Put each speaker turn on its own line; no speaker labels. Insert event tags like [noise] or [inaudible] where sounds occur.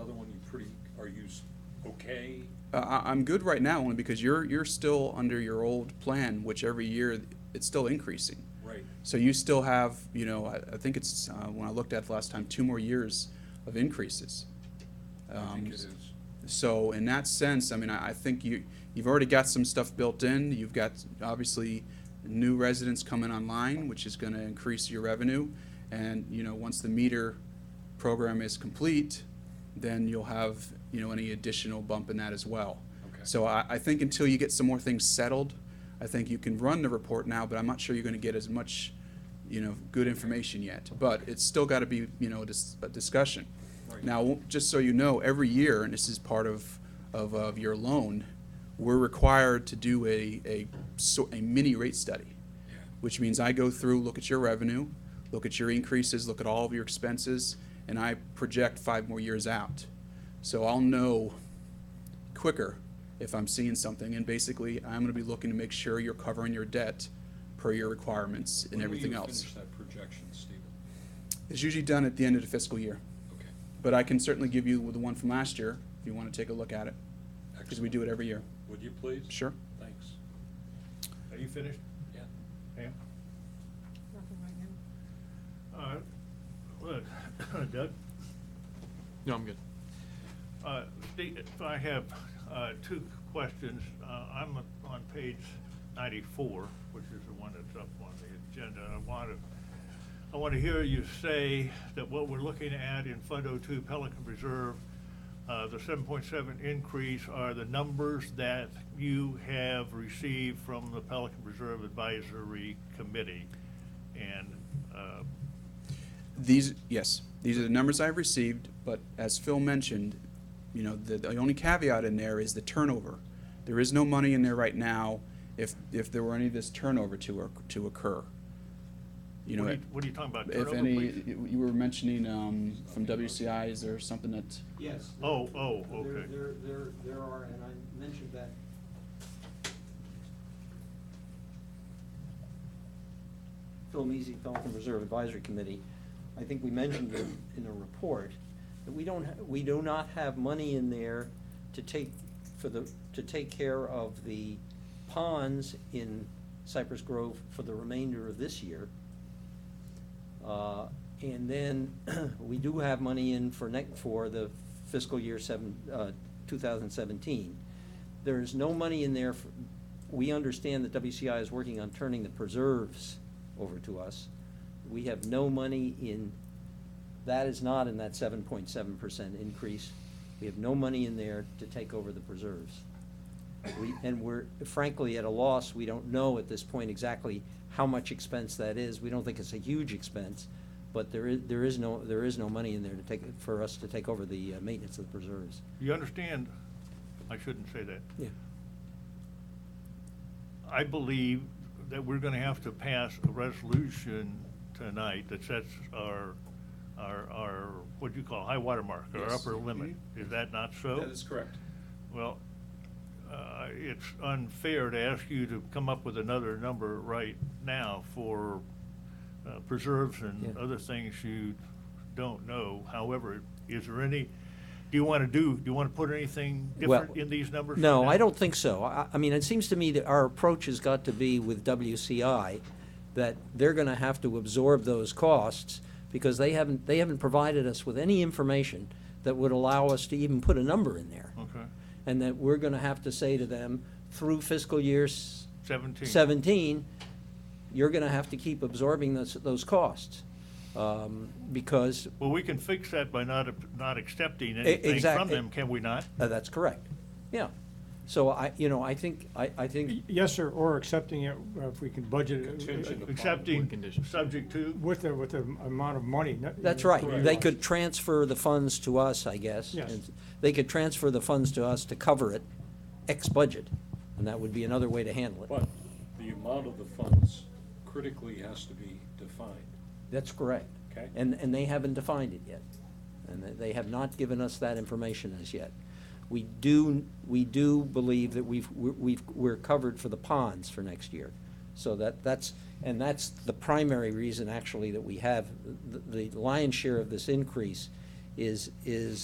other one, you pretty, are you s- okay?
Uh, I, I'm good right now only because you're you're still under your old plan, which every year it's still increasing.
Right,
So you still have, you know, I, I think it's uh, when I looked at it last time, two more years of increases.
I think
Um,
it is.
So in that sense, I mean, I, I think you you've already got some stuff built in. You've got obviously new residents coming online, which is going to increase your revenue. And you know, once the meter program is complete, then you'll have you know any additional bump in that as well.
Okay.
So I, I think until you get some more things settled, I think you can run the report now, but I'm not sure you're going to get as much you know good information yet. But it's still got to be you know a, dis- a discussion.
Right.
Now now, just so you know, every year, and this is part of, of, of your loan, we're required to do a, a, so- a mini rate study,
Yeah.
which means I go through, look at your revenue, look at your increases, look at all of your expenses, and I project five more years out. So I'll know quicker if I'm seeing something, and basically, I'm gonna be looking to make sure you're covering your debt per your requirements and everything
When will you
else.
finish that projection, Stephen?
It's usually done at the end of the fiscal year.
Okay,
But I can certainly give you the one from last year if you want to take a look at it, because we
excellent.
do it every year.
Would you please?
Sure.
Thanks.
Are you finished,
Yeah.
Pam?
Nothing right
Uh,
now.
look, [coughs] Doug,
No, I'm good.
uh, the- if I have uh, two questions. Uh, I'm on page 94, which is the one that's up on the agenda. I want to, I want to hear you say that what we're looking at in Fund 02 Pelican Reserve, uh, the 7.7 increase are the numbers that you have received from the Pelican Reserve Advisory Committee. And uh,
These, yes, these are the numbers I've received, but as Phil mentioned, you know, the, the only caveat in there is the turnover. There is no money in there right now if, if there were any of this turnover to, oc- to occur. You know,
What are you, what are you talking about,
if
turnover,
any,
please?
you were mentioning, um, from WCI, is there something that,
Yes. there-
Oh, oh,
there-
okay.
There, there, there are, and I mentioned that. Phil Measy, Pelican Reserve Advisory Committee, I think we mentioned in in the report that we don't, ha- we do not have money in there to take, for the, to take care of the ponds in Cypress Grove for the remainder of this year. Uh, And then, [clears throat] we do have money in for next, for the fiscal year seven, uh, two thousand seventeen. There is no money in there, for- we understand that WCI is working on turning the preserves over to us. We have no money in, that is not in that seven point seven percent increase. We have no money in there to take over the preserves. We, and we're frankly at a loss, we don't know at this point exactly how much expense that is. We don't think it's a huge expense, but there is, there is no, there is no money in there to take, for us to take over the uh, maintenance of the preserves.
You understand, I shouldn't say that.
Yeah.
I believe that we're gonna have to pass a resolution tonight that sets our, our, our, what do you call, high water mark, our
Yes.
upper limit.
Mm-hmm.
Is that not so?
that is correct.
Well, uh, it's unfair to ask you to come up with another number right now for uh, preserves and
Yeah.
other things you don't know. However, is there any, do you want to do, do you want to put anything different
Well,
in these numbers?
No,
now?
I don't think so. I, I mean, it seems to me that our approach has got to be with WCI, that they're gonna have to absorb those costs, because they haven't, they haven't provided us with any information that would allow us to even put a number in there.
Okay,
And that we're gonna have to say to them, through fiscal years
17.
17, you're going to have to keep absorbing those, those costs, um, because,
Well, we can fix that by not, not accepting
E-
anything from
exact-
them, can we not?
uh, that's correct, yeah. So I, you know, I think, I, I think,
Yes, sir, or accepting it uh, if we can budget
Contingent.
it
Accepting,
conditions.
subject to?
with the, with the amount of money. not-
that's right.
Correct.
They could transfer the funds to us, I guess.
Yes.
and They could transfer the funds to us to cover it, ex-budget, and that would be another way to handle it.
But the amount of the funds critically has to be defined.
That's correct.
Okay.
And, and they haven't defined it yet. And they- they have not given us that information as yet. We do, we do believe that we've, we're- we've, we're covered for the ponds for next year. So that, that's, and that's the primary reason actually that we have, the the lion's share of this increase is, is